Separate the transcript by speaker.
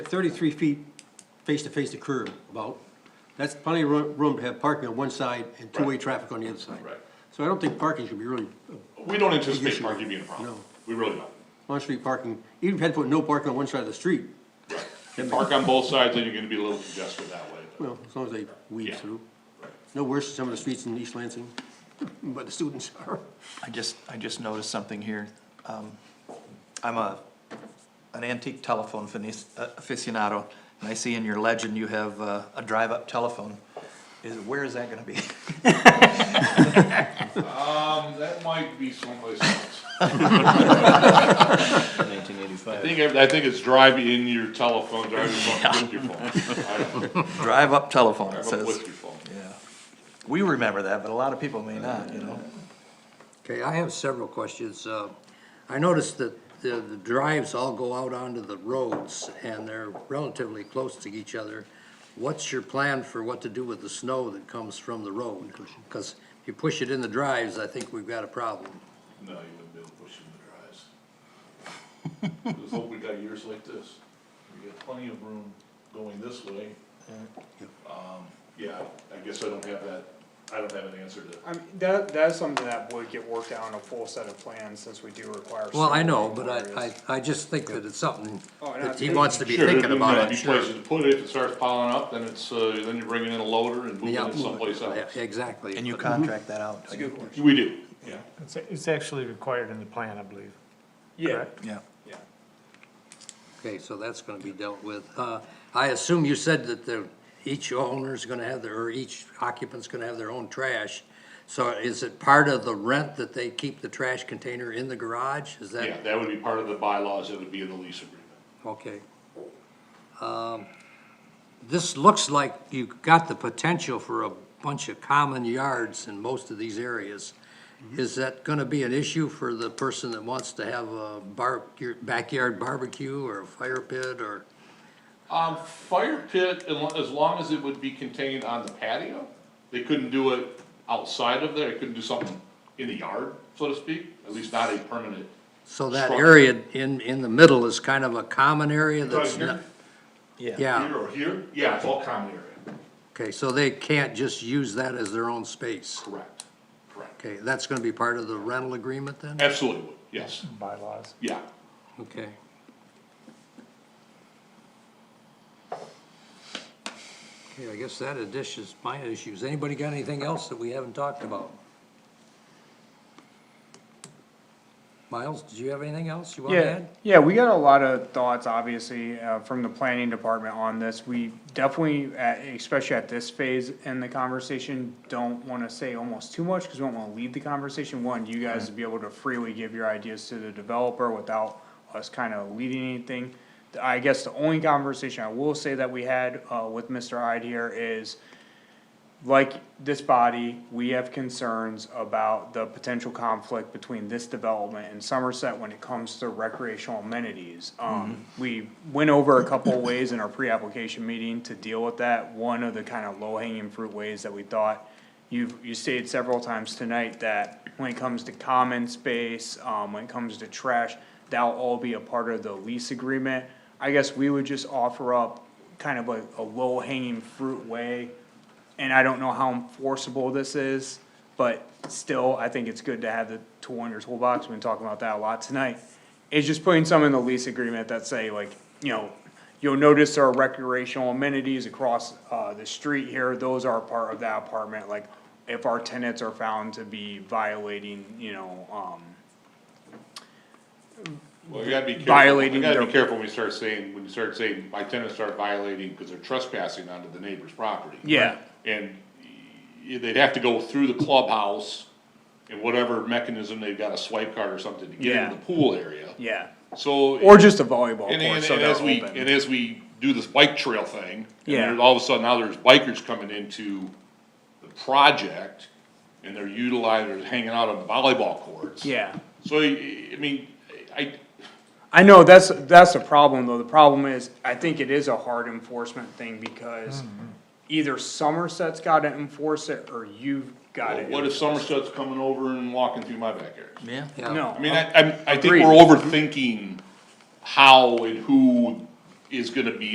Speaker 1: Thirty-three feet face-to-face to curb about, that's plenty of roo- room to have parking on one side and two-way traffic on the other side.
Speaker 2: Right.
Speaker 1: So I don't think parking should be really, uh,
Speaker 2: We don't anticipate parking being a problem.
Speaker 1: No.
Speaker 2: We really don't.
Speaker 1: on-street parking, even if you had to put no parking on one side of the street,
Speaker 2: You Park on both sides, then you're gonna be a little congested that way. but-
Speaker 1: well, as long as they weave
Speaker 2: Yeah.
Speaker 1: through.
Speaker 2: Right.
Speaker 1: No worse than some of the streets in East Lansing, but the students are.
Speaker 3: I just, I just noticed something here. Um, I'm a, an antique telephone finis- uh, aficionado, and I see in your legend you have uh, a drive-up telephone. Is, where is that gonna be?
Speaker 2: Um, that might be someplace else. I
Speaker 4: 1985.
Speaker 2: think, I think it's drive in your telephone, drive your phone, with your phone. I don't know.
Speaker 3: Drive-up telephone,
Speaker 2: Drive
Speaker 3: it
Speaker 2: up
Speaker 3: says.
Speaker 2: with your phone.
Speaker 3: Yeah. We remember that, but a lot of people may not, you know?
Speaker 5: Okay, I have several questions. Uh, I noticed that the the drives all go out onto the roads, and they're relatively close to each other. What's your plan for what to do with the snow that comes from the road? Because if you push it in the drives, I think we've got a problem.
Speaker 2: No, you wouldn't be able to push it in the drives. Just hope we got years like this. We got plenty of room going this way. Um, yeah, I guess I don't have that, I don't have an answer to.
Speaker 6: I mean, that, that is something that would get worked out in a full set of plans, since we do require.
Speaker 5: Well, I
Speaker 6: several
Speaker 5: know,
Speaker 6: different
Speaker 5: but I,
Speaker 6: areas.
Speaker 5: I, I just think that it's something
Speaker 6: Oh, no,
Speaker 5: that he
Speaker 6: it's-
Speaker 5: wants to be
Speaker 2: Sure,
Speaker 5: thinking
Speaker 2: there'd
Speaker 5: about,
Speaker 2: be
Speaker 5: I'm
Speaker 2: many
Speaker 5: sure.
Speaker 2: places to put it, if it starts piling up, then it's, uh, then you're bringing in a loader and moving
Speaker 5: Yeah. Oh,
Speaker 2: it someplace
Speaker 5: Yeah,
Speaker 2: else.
Speaker 5: Exactly.
Speaker 3: And you contract that out.
Speaker 6: It's a good question.
Speaker 2: We do, yeah.
Speaker 7: It's, it's actually required in the plan, I believe.
Speaker 6: Yeah,
Speaker 7: Correct.
Speaker 3: Yeah.
Speaker 6: yeah.
Speaker 5: Okay, so that's gonna be dealt with. Uh, I assume you said that the, each owner's gonna have their, or each occupant's gonna have their own trash. So is it part of the rent that they keep the trash container in the garage? Is
Speaker 2: Yeah,
Speaker 5: that,
Speaker 2: that would be part of the bylaws, that would be in the lease agreement.
Speaker 5: okay? Um, This looks like you've got the potential for a bunch of common yards in most of these areas. Is that gonna be an issue for the person that wants to have a bar, your backyard barbecue or a fire pit or?
Speaker 2: Um, fire pit, as lo- as long as it would be contained on the patio, they couldn't do it outside of there, they couldn't do something in the yard, so to speak, at least not a permanent.
Speaker 5: So that
Speaker 2: structure.
Speaker 5: area in, in the middle is kind of a common area
Speaker 2: Right
Speaker 5: that's not,
Speaker 2: here,
Speaker 5: yeah,
Speaker 2: here or here, yeah, it's all common area,
Speaker 5: okay, so they can't just use that as their own space.
Speaker 2: correct, correct.
Speaker 5: Okay, that's gonna be part of the rental agreement then?
Speaker 2: Absolutely would, yes,
Speaker 7: Bylaws.
Speaker 2: yeah.
Speaker 5: Okay. Okay, I guess that additions, my issues. Anybody got anything else that we haven't talked about? Miles, did you have anything else you wanna
Speaker 6: Yeah,
Speaker 5: add?
Speaker 6: yeah, we got a lot of thoughts, obviously, uh, from the planning department on this. We definitely, at- especially at this phase in the conversation, don't wanna say almost too much, cause we don't wanna lead the conversation. One, you guys to be able to freely give your ideas to the developer without us kinda leading anything. I guess the only conversation I will say that we had, uh, with Mr. Ide here is, like this body, we have concerns about the potential conflict between this development and Somerset when it comes to recreational amenities. Um, we went over a couple of ways in our pre-application meeting to deal with that. One of the kind of low-hanging fruit ways that we thought, you've, you stated several times tonight that when it comes to common space, um, when it comes to trash, that'll all be a part of the lease agreement. I guess we would just offer up kind of a, a low-hanging fruit way and I don't know how enforceable this is, but still, I think it's good to have the tool in your toolbox, we've been talking about that a lot tonight. It's just putting some in the lease agreement that say like, you know, you'll notice there are recreational amenities across, uh, the street here, those are part of that apartment, like, if our tenants are found to be violating, you know, um,
Speaker 2: Well, you gotta be careful,
Speaker 6: Violating
Speaker 2: you gotta be
Speaker 6: their-
Speaker 2: careful when you start saying, when you start saying, my tenants start violating, cause they're trespassing onto the neighbor's property.
Speaker 6: Yeah.
Speaker 2: And y- they'd have to go through the clubhouse and whatever mechanism they've got, a swipe card or something to get
Speaker 6: Yeah.
Speaker 2: into the pool area,
Speaker 6: yeah,
Speaker 2: so.
Speaker 6: or just a volleyball
Speaker 2: And,
Speaker 6: court,
Speaker 2: and,
Speaker 6: so
Speaker 2: and
Speaker 6: they're
Speaker 2: as we, and
Speaker 6: open.
Speaker 2: as we do this bike trail thing, and
Speaker 6: Yeah.
Speaker 2: there- all of a sudden now there's bikers coming into the project and they're utilizing, they're hanging out on the volleyball courts.
Speaker 6: Yeah.
Speaker 2: So, y- y- I mean, I,
Speaker 6: I know, that's, that's the problem, though, the problem is, I think it is a hard enforcement thing, because either Somerset's gotta enforce it, or you've gotta.
Speaker 2: Well, What if Somerset's coming over and walking through my backyard?
Speaker 3: Yeah.
Speaker 5: Yeah.
Speaker 6: No.
Speaker 2: I mean, I, I'm- I think
Speaker 6: Agreed.
Speaker 2: we're overthinking how and who is gonna be